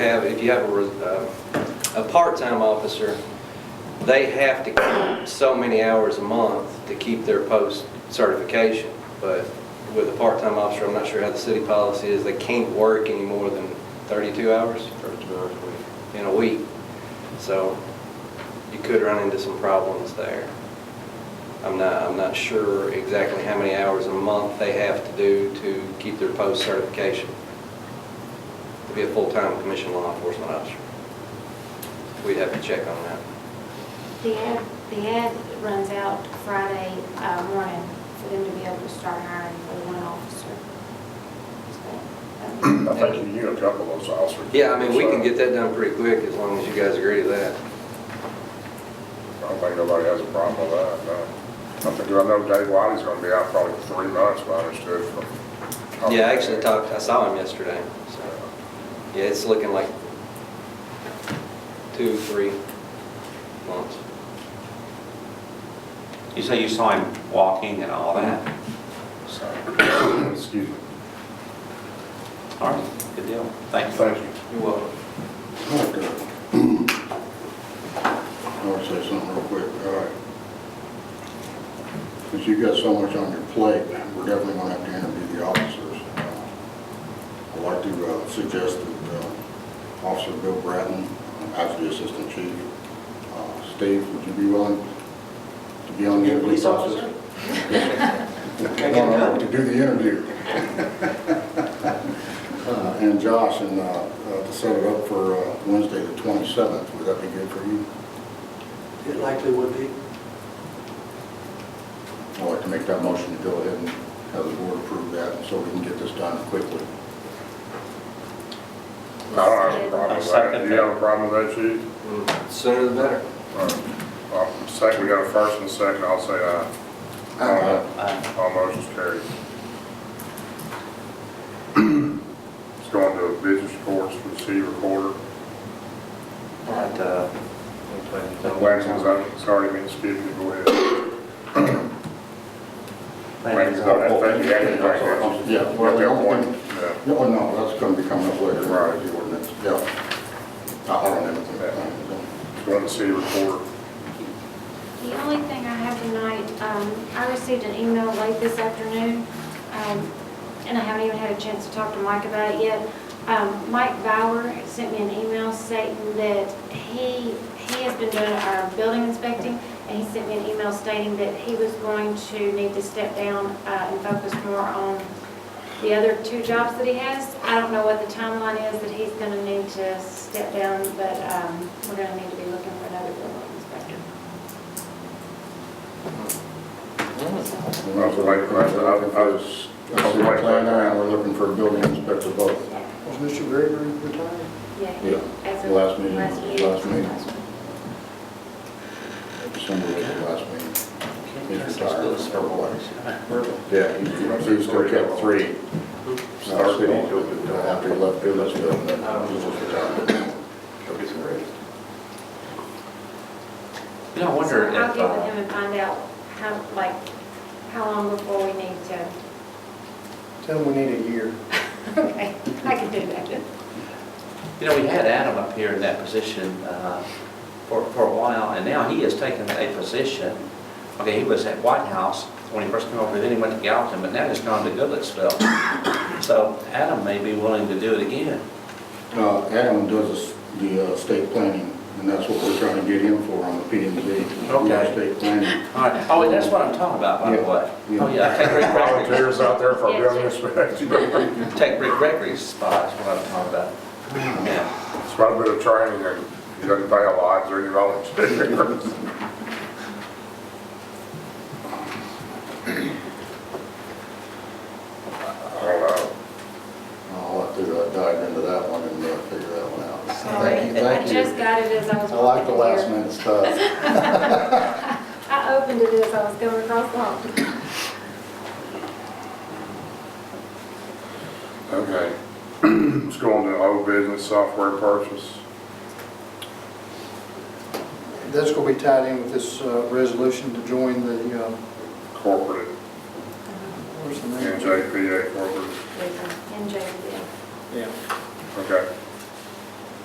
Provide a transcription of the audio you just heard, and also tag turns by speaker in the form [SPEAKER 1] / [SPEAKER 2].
[SPEAKER 1] have, if you have a, res- uh, a part-time officer, they have to keep so many hours a month to keep their post certification. But with a part-time officer, I'm not sure how the city policy is, they can't work any more than 32 hours in a week. So you could run into some problems there. I'm not, I'm not sure exactly how many hours a month they have to do to keep their post certification to be a full-time commissioned law enforcement officer. We'd have to check on that.
[SPEAKER 2] The ad, the ad runs out Friday uh, morning for them to be able to start hiring for the one officer. So, um,
[SPEAKER 3] I think you knew a couple of those officers.
[SPEAKER 1] Yeah, I mean, we can get that done pretty quick as long as you guys agree to that.
[SPEAKER 3] I don't think nobody has a problem with that, no. I think, I know Dave Whitey's gonna be out probably for three months, what I understood from.
[SPEAKER 1] Yeah, I actually talked, I saw him yesterday, so, yeah, it's looking like two, three months.
[SPEAKER 4] You say you saw him walking and all that?
[SPEAKER 3] So, Excuse me.
[SPEAKER 4] All right, good deal. Thank you.
[SPEAKER 5] Thank you.
[SPEAKER 1] You're welcome.
[SPEAKER 5] I want to say something real quick, all right. Since you've got so much on your plate, we're definitely going to have to interview the officers. Uh, I'd like to uh, suggest that uh, Officer Bill Bratton, as the Assistant Chief, uh, Steve, would you be willing to be on the interview
[SPEAKER 6] Police
[SPEAKER 5] process?
[SPEAKER 6] officer?
[SPEAKER 5] Well, to do the interview. Uh, And Josh, and uh, uh, to set it up for uh, Wednesday, the 27th, would that be good for you?
[SPEAKER 6] It likely would be.
[SPEAKER 5] I'd like to make that motion to go ahead and have the board approve that, so we can get this done quickly.
[SPEAKER 3] I don't have a problem
[SPEAKER 4] I
[SPEAKER 3] with
[SPEAKER 4] second
[SPEAKER 3] that. Do you
[SPEAKER 4] that.
[SPEAKER 3] have a problem with that, chief?
[SPEAKER 1] Mm, Sooner the better.
[SPEAKER 3] All right. Well, Second, we got a first and a second, I'll say aye.
[SPEAKER 5] Aye.
[SPEAKER 4] Uh,
[SPEAKER 3] All motions carried. It's going to business reports for the city recorder.
[SPEAKER 4] And, uh,
[SPEAKER 3] Wagons, I'm sorry, I mean, excuse me, go ahead.
[SPEAKER 4] Landon's
[SPEAKER 3] Wagons, I think you had to
[SPEAKER 4] helpful.
[SPEAKER 3] bring that.
[SPEAKER 5] Yeah, well, the only thing-
[SPEAKER 3] Yeah.
[SPEAKER 5] No, Oh, no, that's going to be coming up later,
[SPEAKER 3] Right.
[SPEAKER 5] the ordinance, yeah. I don't have anything. planned,
[SPEAKER 3] It's going to city recorder.
[SPEAKER 2] The only thing I have tonight, um, I received an email late this afternoon, um, and I haven't even had a chance to talk to Mike about it yet. Um, Mike Bauer sent me an email stating that he, he has been doing our building inspecting, and he sent me an email stating that he was going to need to step down uh, and focus more on the other two jobs that he has. I don't know what the timeline is that he's going to need to step down, but um, we're going to need to be looking for another building inspector.
[SPEAKER 5] so.
[SPEAKER 3] I was waiting for that, I was- I was- I was waiting for that.
[SPEAKER 5] And we're looking for a building inspector both.
[SPEAKER 6] Was Mr. Gregory retired?
[SPEAKER 5] Yeah,
[SPEAKER 2] As of
[SPEAKER 5] last meeting,
[SPEAKER 2] Last
[SPEAKER 5] last meeting.
[SPEAKER 2] meeting.
[SPEAKER 5] December was the last meeting. He's retired, or what? Yeah, he- he still kept three.
[SPEAKER 3] Start
[SPEAKER 5] Started
[SPEAKER 3] date till the-
[SPEAKER 5] after he left Goodlettsville, and then he was retired.
[SPEAKER 3] Go get some rest.
[SPEAKER 4] You know, I wonder if,
[SPEAKER 2] So I'll get with him
[SPEAKER 4] uh,
[SPEAKER 2] and find out how, like, how long before we need to,
[SPEAKER 6] Tell him we need a year.
[SPEAKER 2] okay, I can do that.
[SPEAKER 4] you know, we had Adam up here in that position uh, for for a while, and now he has taken a position. Okay, he was at White House when he first came over, then he went to Gallatin, but now he's gone to Goodlettsville. So Adam may be willing to do it again.
[SPEAKER 5] Uh, Adam does the s- the uh, state planning, and that's what we're trying to get him for on the P and Z.
[SPEAKER 4] Okay.
[SPEAKER 5] State planning.
[SPEAKER 4] All right, oh, and that's what I'm talking about, by the
[SPEAKER 5] Yeah.
[SPEAKER 4] way.
[SPEAKER 5] Yeah.
[SPEAKER 4] Oh, yeah, take Rick Gregory's
[SPEAKER 3] Volunteers out there for
[SPEAKER 2] Yes.
[SPEAKER 3] building inspection.
[SPEAKER 4] Take Rick Gregory's spot is what I'm talking about. Yeah.
[SPEAKER 3] It's quite a bit of training and you don't pay a lot, there you volunteers. I don't know.
[SPEAKER 5] I'll have to uh, dive into that one and uh, figure that one out.
[SPEAKER 2] Sorry,
[SPEAKER 5] Thank you,
[SPEAKER 2] I
[SPEAKER 5] thank you.
[SPEAKER 2] just got it as I was
[SPEAKER 5] I like the
[SPEAKER 2] walking
[SPEAKER 5] last
[SPEAKER 2] here.
[SPEAKER 5] minute stuff.
[SPEAKER 2] I opened it as I was going across the hall.
[SPEAKER 3] Okay. Let's go on to old business software purchase.
[SPEAKER 6] That's going to be tied in with this uh, resolution to join the, uh,
[SPEAKER 3] corporate
[SPEAKER 6] where's the
[SPEAKER 3] and
[SPEAKER 6] name?
[SPEAKER 3] JPA corporate.
[SPEAKER 2] And Jason,
[SPEAKER 6] Yeah.
[SPEAKER 3] Okay.